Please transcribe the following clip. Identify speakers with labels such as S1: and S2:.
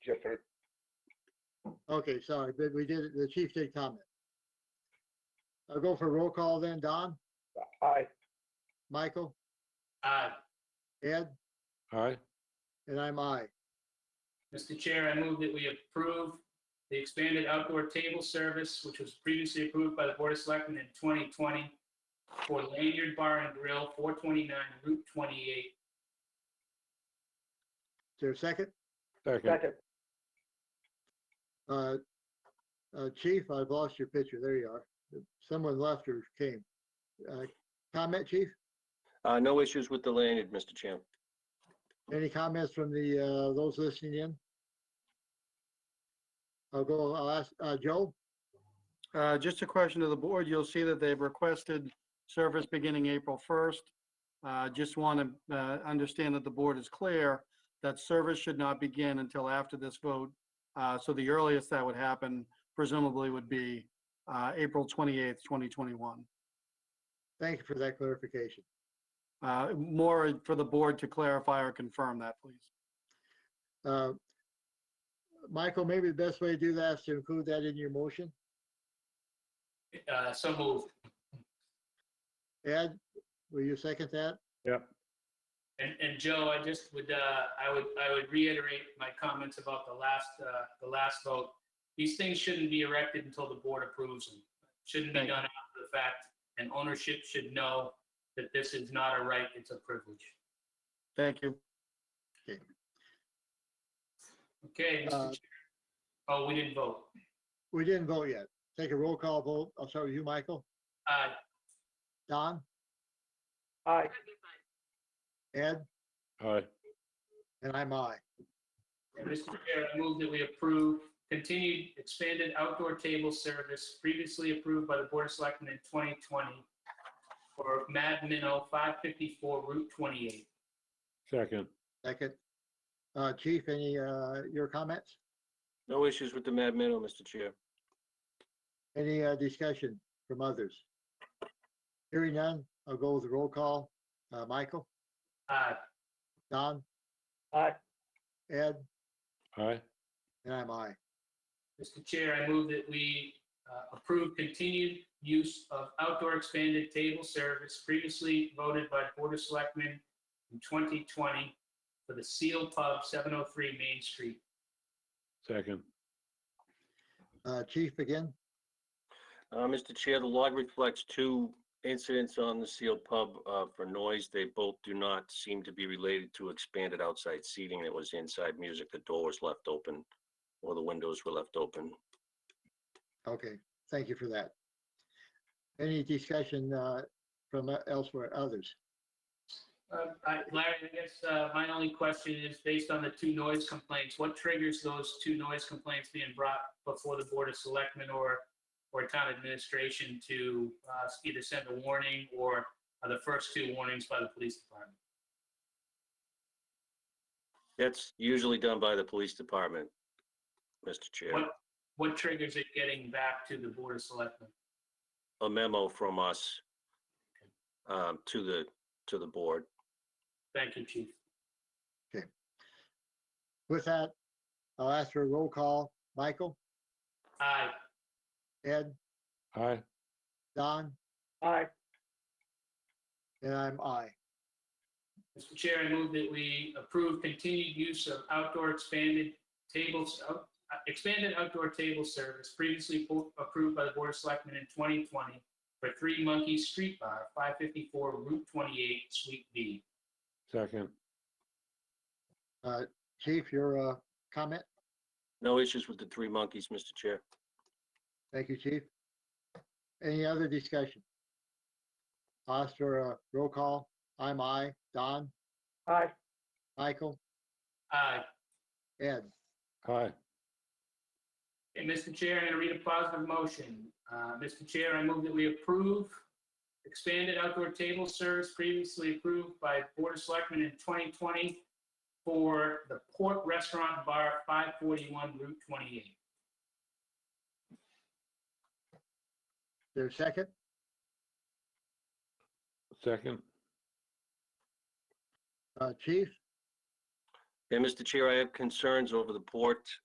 S1: Okay, sorry, but we did, the chief did comment. I'll go for roll call then. Don,
S2: Aye.
S1: Michael,
S3: Aye.
S1: Ed,
S4: Aye.
S1: and I'm I.
S3: Mr. Chair, I move that we approve the expanded outdoor table service, which was previously approved by the Board of Selectmen in 2020 for Lanyard Bar and Grill, 429 Route 28.
S1: Is there a second?
S4: Second.
S2: Second.
S1: Uh, uh, Chief, I've lost your picture. There you are. Someone left or came. Uh, Comment, chief?
S5: Uh, no issues with the lanyard, Mr. Chair.
S1: Any comments from the, uh, those listening in? I'll go, I'll ask, uh, Joe?
S6: Uh, Just a question to the board. You'll see that they've requested service beginning April 1st. Uh, Just want to understand that the board is clear that service should not begin until after this vote. Uh, So the earliest that would happen presumably would be uh, April 28th, 2021.
S1: Thank you for that clarification.
S6: Uh, More for the board to clarify or confirm that, please.
S1: Uh, Michael, maybe the best way to do that is to include that in your motion.
S3: Uh, So moved.
S1: Ed, will you second that?
S3: And, and Joe, I just would, uh, I would, I would reiterate my comments about the last, uh, the last vote. These things shouldn't be erected until the board approves them. Shouldn't be
S6: Thank you.
S3: done after the fact, and ownership should know that this is not a right, it's a privilege.
S6: Thank you.
S3: Okay, Mr.
S1: Uh,
S3: Chair. Oh, we didn't vote.
S1: We didn't vote yet. Take a roll call vote. I'll start with you, Michael.
S3: Uh,
S1: Don,
S2: Aye.
S1: Ed,
S4: Aye.
S1: and I'm I.
S3: And Mr. Chair, I move that we approve continued expanded outdoor table service previously approved by the Board of Selectmen in 2020 for Mad Minnow, 554 Route 28.
S4: Second.
S1: Second. Uh, Chief, any, uh, your comments?
S5: No issues with the Mad Minnow, Mr. Chair.
S1: Any, uh, discussion from others? Hearing none, I'll go with the roll call. Uh, Michael,
S3: Aye.
S1: Don,
S2: Aye.
S1: Ed,
S4: Aye.
S1: and I'm I.
S3: Mr. Chair, I move that we uh, approve continued use of outdoor expanded table service previously voted by Board of Selectmen in 2020 for the Seal Pub, 703 Main Street.
S4: Second.
S1: Uh, Chief again?
S5: Uh, Mr. Chair, the log reflects two incidents on the sealed pub, uh, for noise. They both do not seem to be related to expanded outside seating. It was inside music. The door was left open or the windows were left open.
S1: Okay, thank you for that. Any discussion, uh, from uh, elsewhere, others?
S3: Uh, I- Larry, I guess uh, my only question is, based on the two noise complaints, what triggers those two noise complaints being brought before the Board of Selectmen or, or town administration to uh, either send a warning or are the first two warnings by the police department?
S5: That's usually done by the police department, Mr. Chair.
S3: What, what triggers it getting back to the Board of Selectmen?
S5: A memo from us, um, to the, to the board.
S3: Thank you, Chief.
S1: With that, I'll ask for a roll call. Michael,
S3: Aye.
S1: Ed,
S4: Aye.
S1: Don,
S2: Aye.
S1: and I'm I.
S3: Mr. Chair, I move that we approve continued use of outdoor expanded tables, out- uh, expanded outdoor table service previously po- approved by the Board of Selectmen in 2020 for Three Monkeys Street Bar, 554 Route 28, Suite B.
S4: Second.
S1: Chief, your, uh, comment?
S5: No issues with the three monkeys, Mr. Chair.
S1: Thank you, chief. Any other discussion? I'll Ask for a roll call. I'm I. Don,
S2: Aye.
S1: Michael,
S3: Aye.
S1: Ed.
S4: Aye.
S3: Okay, Mr. Chair, I'm going to read a positive motion. Uh, Mr. Chair, I move that we approve expanded outdoor table service previously approved by Board of Selectmen in 2020 for the Port Restaurant Bar, 541 Route 28.
S1: There's second?
S4: Second.
S1: Uh, chief, Uh,
S5: Yeah, Mr. Chair, I have concerns over the port